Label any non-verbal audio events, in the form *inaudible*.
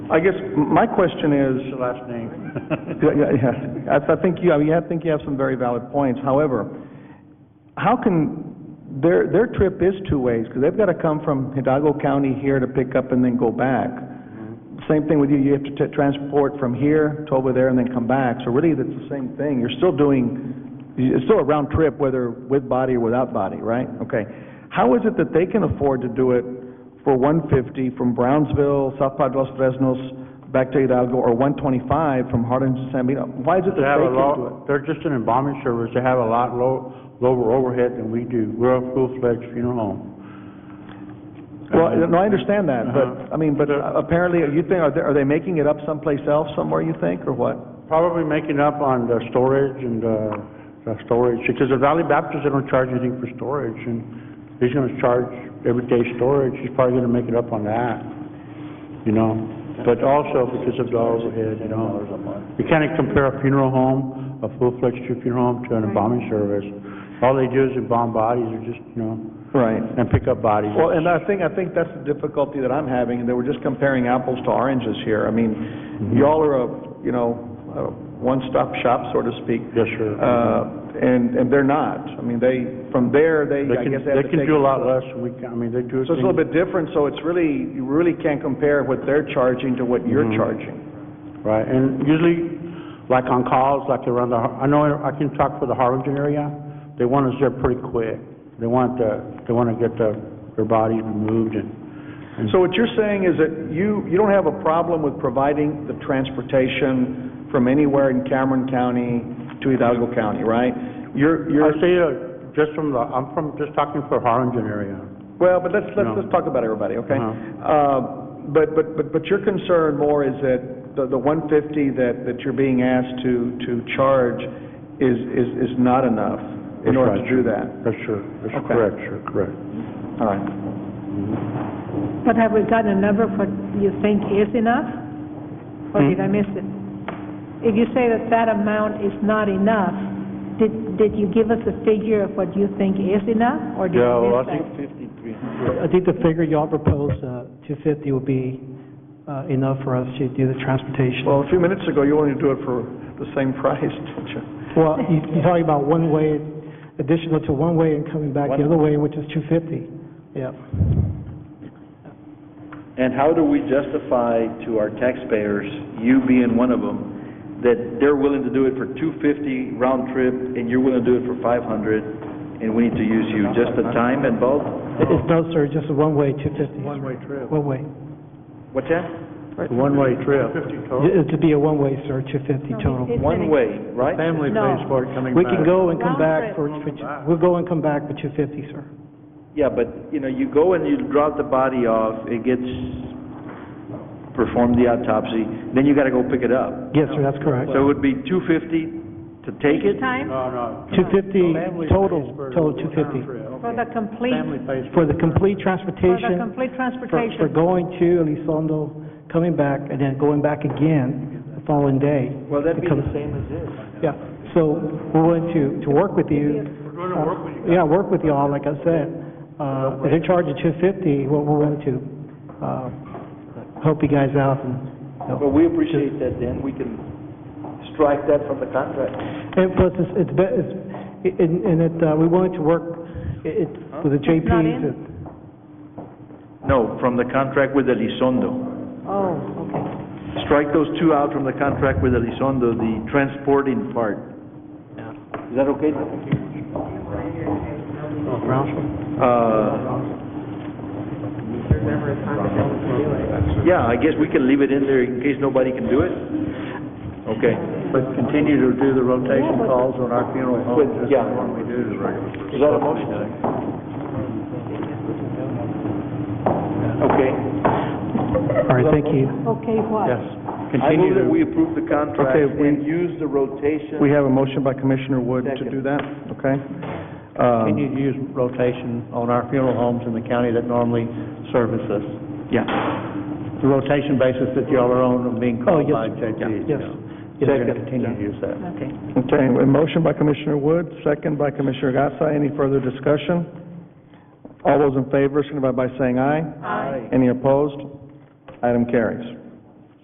I guess my question is, last name. yeah, yeah, yeah. I I think you, I mean, I think you have some very valid points. However, how can, their, their trip is two ways, because they've got to come from Hidalgo County here to pick up and then go back. Same thing with you, you have to t- transport from here to over there and then come back. So really, that's the same thing. You're still doing, it's still a round trip, whether with body or without body, right? Okay. How is it that they can afford to do it for one fifty from Brownsville, South Padre Los Fresnos, back to Hidalgo, or one twenty-five from Harlingen to San Benito? Why is it *laughs* They that have they a can do it? lot, they're just an embalming service, they have a lot low, lower overhead than we do. We're a full-fledged funeral home. Well, no, I understand that, but, Uh-huh. I mean, but They're- apparently, you think, are they, are they making it up someplace else, somewhere, you think, or what? Probably making up on the storage and, uh, the storage, because the Valley Baptist, they don't charge anything for storage, and he's gonna charge everyday storage, he's probably gonna make it up on that, you know? But also because of the overhead, you know? You can't compare a funeral home, a full-fledged funeral home to an embalming service. All they do is embalm bodies, or just, you know, Right. and pick up bodies. Well, and I think, I think that's the difficulty that I'm having, and that we're just comparing apples to oranges here. I Mm-hmm. mean, y'all are a, you know, a one-stop shop, so to speak. Yes, sir. Uh, and, and they're not. I mean, they, from there, they, They I can, guess they have they to can take- do a lot less, than we can, I mean, they do. So it's a little bit different, so it's really, you really can't compare what they're charging to what Mm-hmm. you're charging. Right, and usually, like on calls, like around the, Har- I know, I can talk for the Harlingen area, they want us there pretty quick. They want the, they want to get the, their bodies removed and, So what you're saying is that you, you don't have a problem with providing the transportation from anywhere in Cameron County to Hidalgo County, right? You're, you're... I say, uh, just from the, I'm from, just talking for Harlingen area. Well, but let's, let's, No. let's talk about everybody, okay? Uh-huh. Uh, but, but, but, but your concern more is that the, the one fifty that, that you're being asked to, to charge is, is, is not enough in That's order right, to do sir. that. That's sure, that's Okay. correct, sure, correct. All right. But have we gotten a number for you think is enough? Or did I miss it? If you say that that amount is not enough, did, did you give us a figure of what you think is enough, or did Yeah, you well, I miss that? think I think the figure y'all proposed, uh, 250 would be uh, enough for us to do the transportation. Well, a few minutes ago, you wanted to do it for the same *laughs* price, didn't you? Well, you- you're talking about one way, additional to one way and coming back the other way, which is 250. Yeah. And how do we justify to our taxpayers, you being one of them, that they're willing to do it for two fifty round trip and you're willing to do it for five hundred and we need to use you? Just the time involved? It- It's no, sir, just a one-way, 250. One-way trip. One-way. What's that? One-way trip. It- It'd be a one-way, sir, 250 total. It's One an- way, right? Family No. pays for it coming We can go and come Round trip. back for, for two- we'll go and come back for 250, sir. Yeah, but, you know, you go and you drop the body off, it gets, performed the autopsy, then you gotta go pick it up. Yes, sir, that's correct. So it would be two fifty to take it? Time No, no. 250 Family total, pays for the round total 250. trip. for the complete, Family pays for For the complete for the transportation. complete for, for transportation. going to Elizondo, coming back, and then going back again the following day. Well, that'd be the Because- same as this. Yeah, so we're willing to, to work with you. We're gonna work with you. Yeah, work with y'all, like I said. Uh, if they're charging two fifty, we're, we're willing to, uh, help you guys out and, you know. Well, we appreciate that, then, we can strike that from the contract. And plus, it's, it's, be- it's, it- and, and it, uh, we're willing to work it, it- with the JPs. not in? and- No, from the contract with Elizondo. Oh, okay. Strike those two out from the contract with Elizondo, the transporting part. Is that okay? Uh, there's never a time that no one can do it. yeah, I guess we can leave it in there in case nobody can do it? Okay. But continue to do the rotation calls on our funeral homes, But, just Oh, yeah. like what we do to regular. Is that a motion? Okay. All right, thank you. Okay, what? I Continue move that to, we approve the contract Okay, we- and use the rotation. We have a motion by Commissioner Wood to Second. do that, okay? Um, continue to use rotation on our funeral homes in the county that normally service us. yeah. The rotation basis that y'all are on of being Oh, called yes, by JPs. yes. We're Yes, going to continue to use that. Okay. Okay, a motion by Commissioner Wood, second by Commissioner Gatsa. Any further discussion? All those in favor, signify by saying aye. Aye. Any opposed? Item carries.